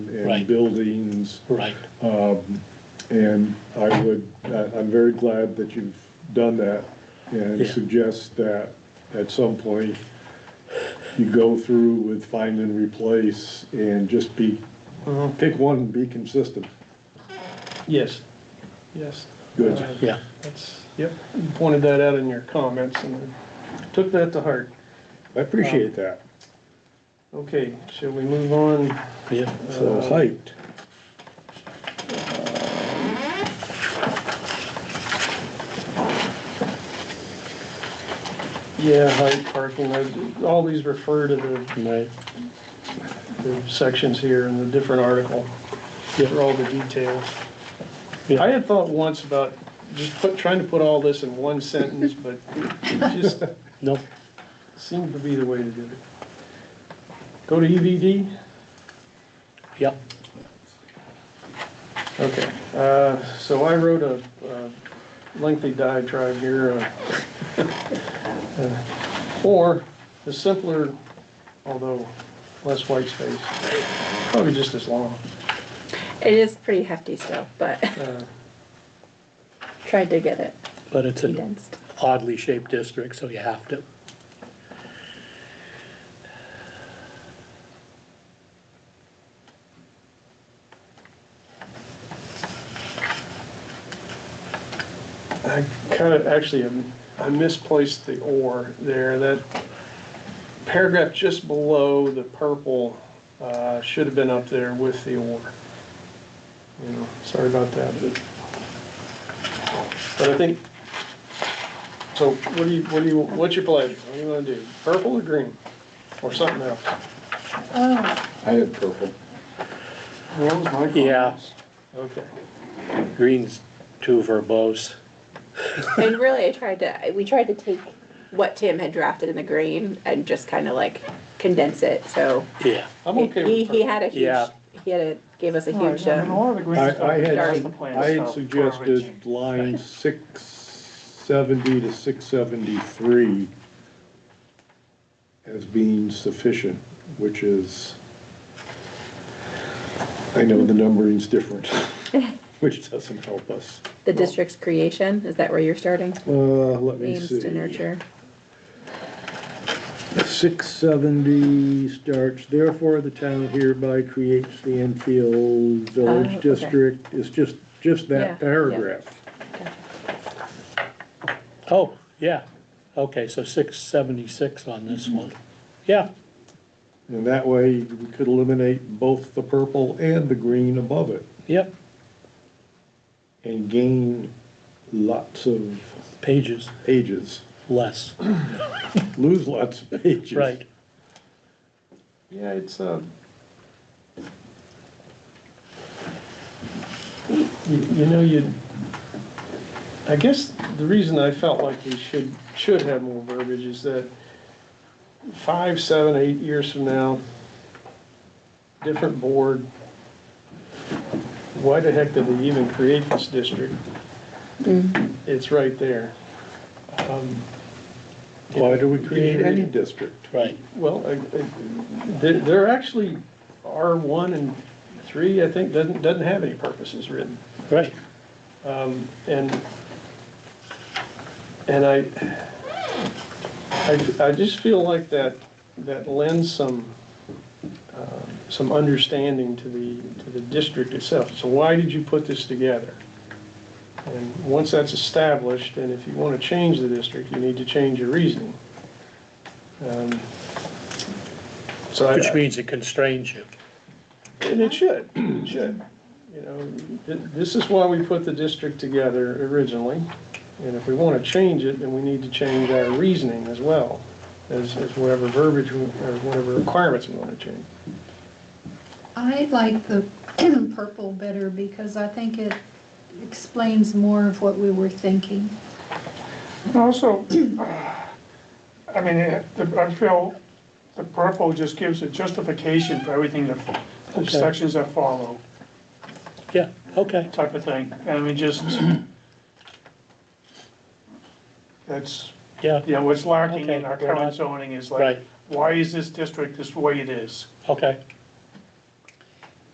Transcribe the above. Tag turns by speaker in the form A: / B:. A: and
B: Right.
A: buildings.
B: Right.
A: And I would, I- I'm very glad that you've done that and
B: Yeah.
A: suggest that at some point you go through with find and replace and just be, pick one and be consistent.
C: Mm-hmm. Yes, yes. Uh,
A: Good.
B: Yeah.
C: That's, yep, you pointed that out in your comments and I took that to heart.
A: I appreciate
B: Um,
A: that.
C: Okay, shall we move on?
B: Yeah.
A: So hyped.
C: Yeah, height parking, I- all these refer to the,
B: Right.
C: the sections here in the different article. Give her all the details.
B: Yeah.
C: I had thought once about just put, trying to put all this in one sentence, but it just
B: No.
C: seemed to be the way to do it. Go to E EVD?
B: Yeah.
C: Okay, uh, so I wrote a uh, lengthy diatribe here. uh, uh, Or the simpler, although less white space, probably just as long.
D: It is pretty hefty stuff, but
C: Uh,
D: tried to get it
B: But it's an
D: condensed.
B: oddly shaped district, so you have to.
C: I kind of, actually, um, I misplaced the "or" there. That paragraph just below the purple uh, should have been up there with the "or." You know, sorry about that, but, but I think, so what do you, what do you, what's your pleasure? What do you want to do? Purple or green? Or something else?
A: I had purple.
C: That was my
B: Yeah,
C: Okay.
B: green's too verbose.
D: And really, I tried to, we tried to take what Tim had drafted in the green and just kind of like condense it, so.
B: Yeah.
C: I'm okay
D: He,
C: with
D: he
C: purple.
D: had a huge,
B: Yeah.
D: he had a, gave us a
E: No,
D: huge,
E: no, no,
D: um,
E: all the green
A: I,
E: stuff
A: I had,
E: is the plan,
A: I had
E: so-
A: suggested line six seventy to six seventy-three as being sufficient, which is, I know the numbering's different, which doesn't help us.
D: the district's creation, is that where you're starting?
A: Uh, let me
D: Aims to
A: see.
D: nurture.
A: Six seventy starts, therefore the town hereby creates the Enfield
D: Oh,
A: Village
D: okay.
A: District. It's just, just
D: Yeah, yeah.
A: that paragraph.
B: Oh, yeah. Okay, so six seventy-six on this one. Yeah,
A: And that way, we could eliminate both the purple and the green above it
B: yep,
A: and gain lots of
B: pages
A: pages,
B: less,
A: lose lots of pages.
B: right.
C: Yeah, it's, uh, you, you know, you, I guess the reason I felt like we should, should have more verbiage is that five, seven, eight years from now, different board, why the heck did they even create this district? It's right there. Um,
A: Why do we create any district?
B: Right,
C: well, I- I- there, there actually are one and three, I think, doesn't, doesn't have any purposes written.
B: right.
C: And, and I, I, I just feel like that, that lends some, uh, some understanding to the, to the district itself. So why did you put this together? And once that's established, and if you want to change the district, you need to change your reasoning. Um, So I.
B: Which means it constrains you.
C: And it should, it should. You know, th- this is why we put the district together originally. And if we want to change it, then we need to change our reasoning as well, as, as whatever verbiage we- or whatever requirements we want to change.
F: I like the purple better because I think it explains more of what we were thinking.
E: And Also, I mean, it- the- I feel the purple just gives a justification for everything that, the sections that follow,
B: Yeah, okay,
E: type of thing. And I mean, just, that's,
B: yeah,
E: you know, what's lacking in
B: Okay,
E: our
B: we're not-
E: current zoning is
B: right,
E: like, why is this district this way it is?
B: okay,